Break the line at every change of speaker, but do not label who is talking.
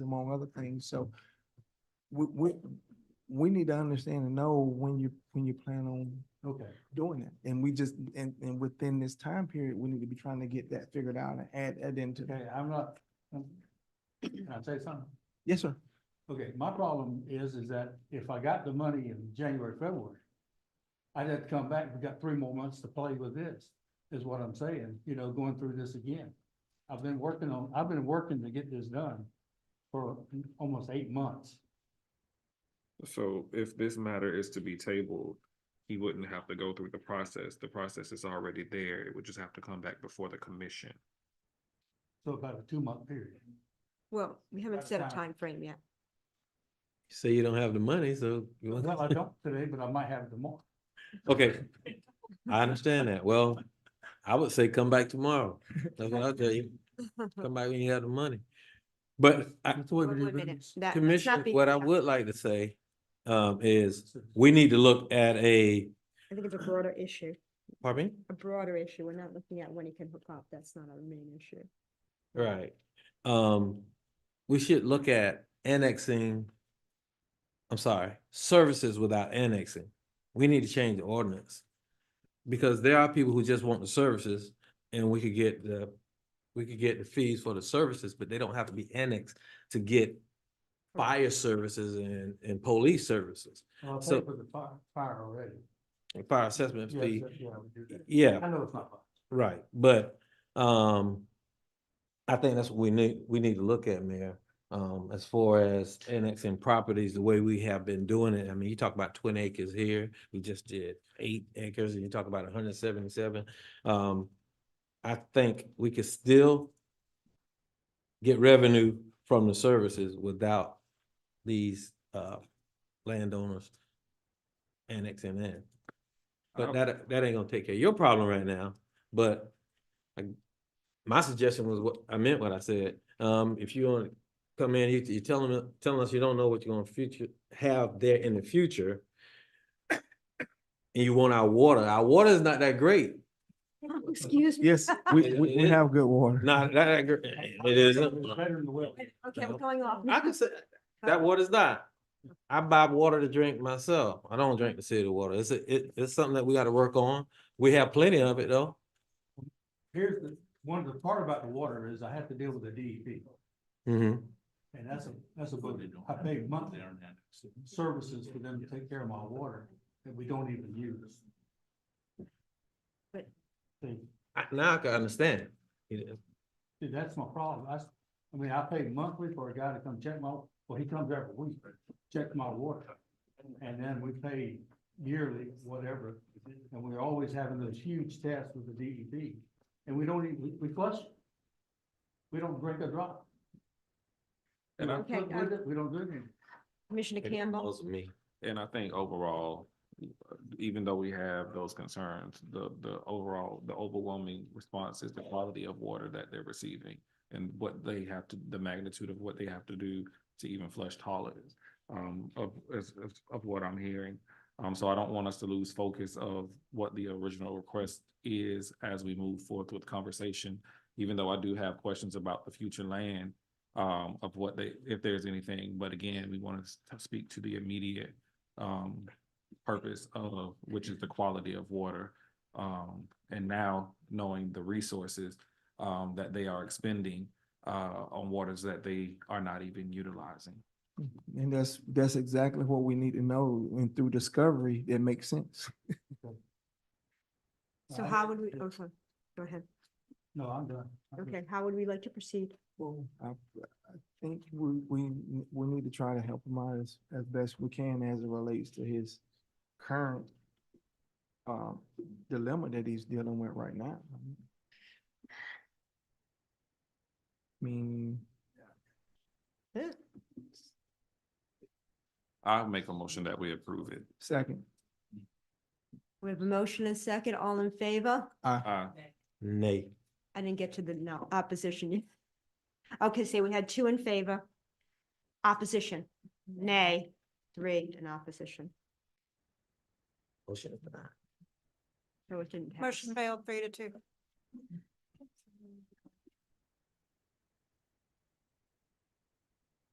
among other things, so we, we, we need to understand and know when you, when you plan on
Okay.
doing it. And we just, and, and within this time period, we need to be trying to get that figured out and add, add into that.
Okay, I'm not, I'm- can I say something?
Yes, sir.
Okay, my problem is, is that if I got the money in January, February, I'd have to come back, we got three more months to play with this, is what I'm saying, you know, going through this again. I've been working on, I've been working to get this done for almost eight months.
So if this matter is to be tabled, he wouldn't have to go through the process. The process is already there. It would just have to come back before the commission.
So about a two-month period.
Well, we haven't
That's
set a
fine.
time frame yet.
Say you don't have the money, so. you want-
Well, I don't today, but I might have it tomorrow.
Okay, I understand that. Well, I would say come back tomorrow. That's what I'll tell you. Come back when you have the money. But I,
That's the way
Wait
we
a
do
minute,
business.
that- that's not
Commissioner,
being
what I
done.
would like to say, um, is we need to look at a,
I think it's a broader issue,
pardon me?
a broader issue. We're not looking at when he can hook up. That's not our main issue.
Right. Um, we should look at annexing. I'm sorry, services without annexing. We need to change the ordinance. Because there are people who just want the services and we could get the, we could get the fees for the services, but they don't have to be annexed to get fire services and, and police services.
Well, I
So-
paid for the fire, fire already.
and Fire assessment
Yes,
fee,
yes, yeah, we do that.
e, yeah.
I know it's not. much.
Right, but, um, I think that's what we need, we need to look at, Mayor. Um, as far as annexing properties, the way we have been doing it, I mean, you talk about twenty acres here, we just did eight acres, and you talk about hundred seventy-seven. Um, I think we could still get revenue from the services without these, uh, landowners annexing in. But
don't-
that, that ain't gonna take care of your problem right now, but I, my suggestion was what, I meant what I said. Um, if you wanna come in, you, you telling, me- telling us you don't know what you're gonna future, have there in the future. And you want our water, our water is not that great,
Oh, Excuse me.
Yes, we, we, we have good water.
not that, that great, it isn't.
It's better than the well.
Okay, we're going off.
I can say, that water's not. I buy water to drink myself. I don't drink the city water. It's, a- it, it's something that we gotta work on. We have plenty of it though.
Here's the, one of the part about the water is I have to deal with the DEP.
hmm
And that's a, that's a budget. I pay monthly services for them to take care of my water that we don't even use.
But-
See,
I, now I can understand. It is-
see, that's my problem. I, s- I mean, I pay monthly for a guy to come check my, well, he comes every week, check my water. And then we pay yearly, whatever, and we're always having those huge tests with the DEP. And we don't even, we flush. We don't drink a drop. We don't
Okay, um,
cook with it, we don't do anything.
Commissioner
it
Campbell,
bothers me.
And I think overall, even though we have those concerns, the, the overall, the overwhelming response is the quality of water that they're receiving and what they have to, the magnitude of what they have to do to even flush toilets, um, of, is- is- of what I'm hearing. Um, so I don't want us to lose focus of what the original request is as we move forth with conversation. Even though I do have questions about the future land, um, of what they, if there's anything, but again, we want to speak to the immediate um, purpose of, which is the quality of water. Um, and now knowing the resources, um, that they are expending, uh, on waters that they are not even utilizing.
And that's, that's exactly what we need to know. And through discovery, that makes sense.
so how would we, oh, sorry. go ahead.
No, I'm done.
Mm-hmm.
I'm
Okay, how would we like to proceed?
Well, I, I think we, we, n- we need to try to help him out as, as best we can as it relates to his current um, dilemma that he's dealing with right now. I mean,
I'll make a motion that we approve it.
second,
We have a motion and second, all in favor?
Uh,
Nay.
I didn't get to the no opposition. yet. Okay, so we had two in favor. Opposition, nay, three in opposition.
Motion is denied.
So it didn't pass.
Motion failed three to two.